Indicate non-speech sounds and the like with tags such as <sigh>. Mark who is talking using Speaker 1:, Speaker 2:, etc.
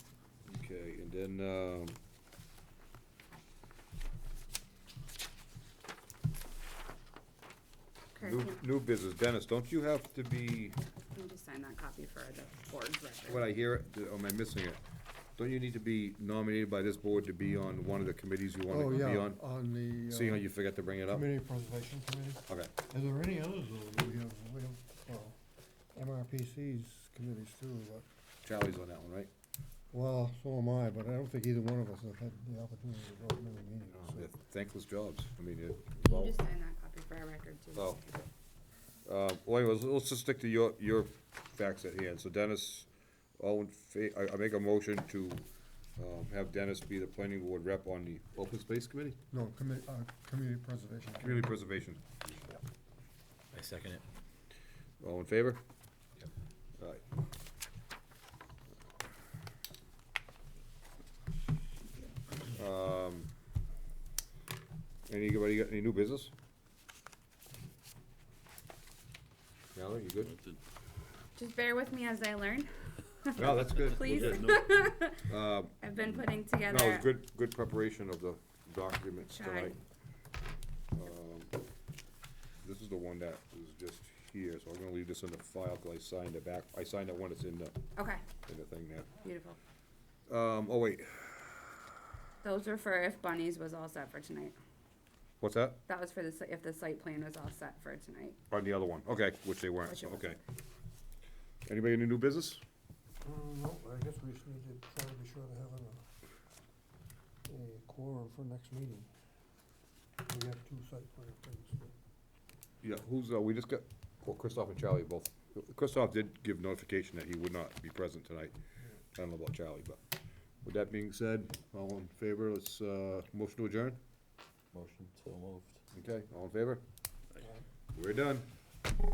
Speaker 1: And then, um,
Speaker 2: Kurt,
Speaker 1: new,
Speaker 2: can
Speaker 1: new business, Dennis, don't you have to be,
Speaker 2: can you just sign that copy for the board's record?
Speaker 1: when I hear it, or am I missing it? Don't you need to be nominated by this board to be on one of the committees you
Speaker 3: Oh,
Speaker 1: wanna be
Speaker 3: yeah,
Speaker 1: on?
Speaker 3: on the. uh,
Speaker 1: Seeing how you forgot to bring it up?
Speaker 3: Community Preservation Committee.
Speaker 1: Okay,
Speaker 3: Are there any others, though, that we have, we have, well, MRPC's committees too, but,
Speaker 1: Charlie's on that one, right?
Speaker 3: well, so am I, but I don't think either one of us have had the opportunity to go to many meetings. so-
Speaker 1: They're Thankless jobs, I mean, it,
Speaker 2: Can
Speaker 1: well,
Speaker 2: you just sign that copy for our record too?
Speaker 1: well. Uh, well, anyways, let's just stick to your, your facts at hand, so Dennis, all in fa- I, I make a motion to, um, have Dennis be the planning board rep on the open space committee?
Speaker 3: No, commi- uh, Community Preservation. Committee.
Speaker 1: Community preservation,
Speaker 4: I second it.
Speaker 1: all in favor? Yep. Alright. Um, anybody got any new business? Mallory, you good?
Speaker 2: Just bear with me as I learn,
Speaker 1: <laughs> No, that's good.
Speaker 2: please. <laughs>
Speaker 1: Um,
Speaker 2: I've been putting together.
Speaker 1: No, it was good, good preparation of the documents
Speaker 2: Tried.
Speaker 1: tonight. Um, This is the one that was just here, so I'm gonna leave this in the file, cause I signed it back, I signed that one that's in the,
Speaker 2: Okay,
Speaker 1: in the thing there.
Speaker 2: beautiful.
Speaker 1: Um, oh wait,
Speaker 2: Those were for if Bunnies was all set for tonight.
Speaker 1: what's that?
Speaker 2: That was for the, si- if the site plan was all set for tonight.
Speaker 1: On the other one, okay, which they weren't,
Speaker 2: Which it
Speaker 1: okay. Anybody in the new business?
Speaker 3: Mm, No, I guess we just need to try to be sure to have a, a quorum for next meeting. We have two site plan things.
Speaker 1: Yeah, who's, uh, we just got, well, Christoph and Charlie both, Christoph did give notification that he would not be present tonight. I don't know about Charlie, but, with that being said, all in favor, let's, uh, motion to adjourn?
Speaker 4: Motion so moved.
Speaker 3: uh,
Speaker 1: Okay, all in favor? We're done.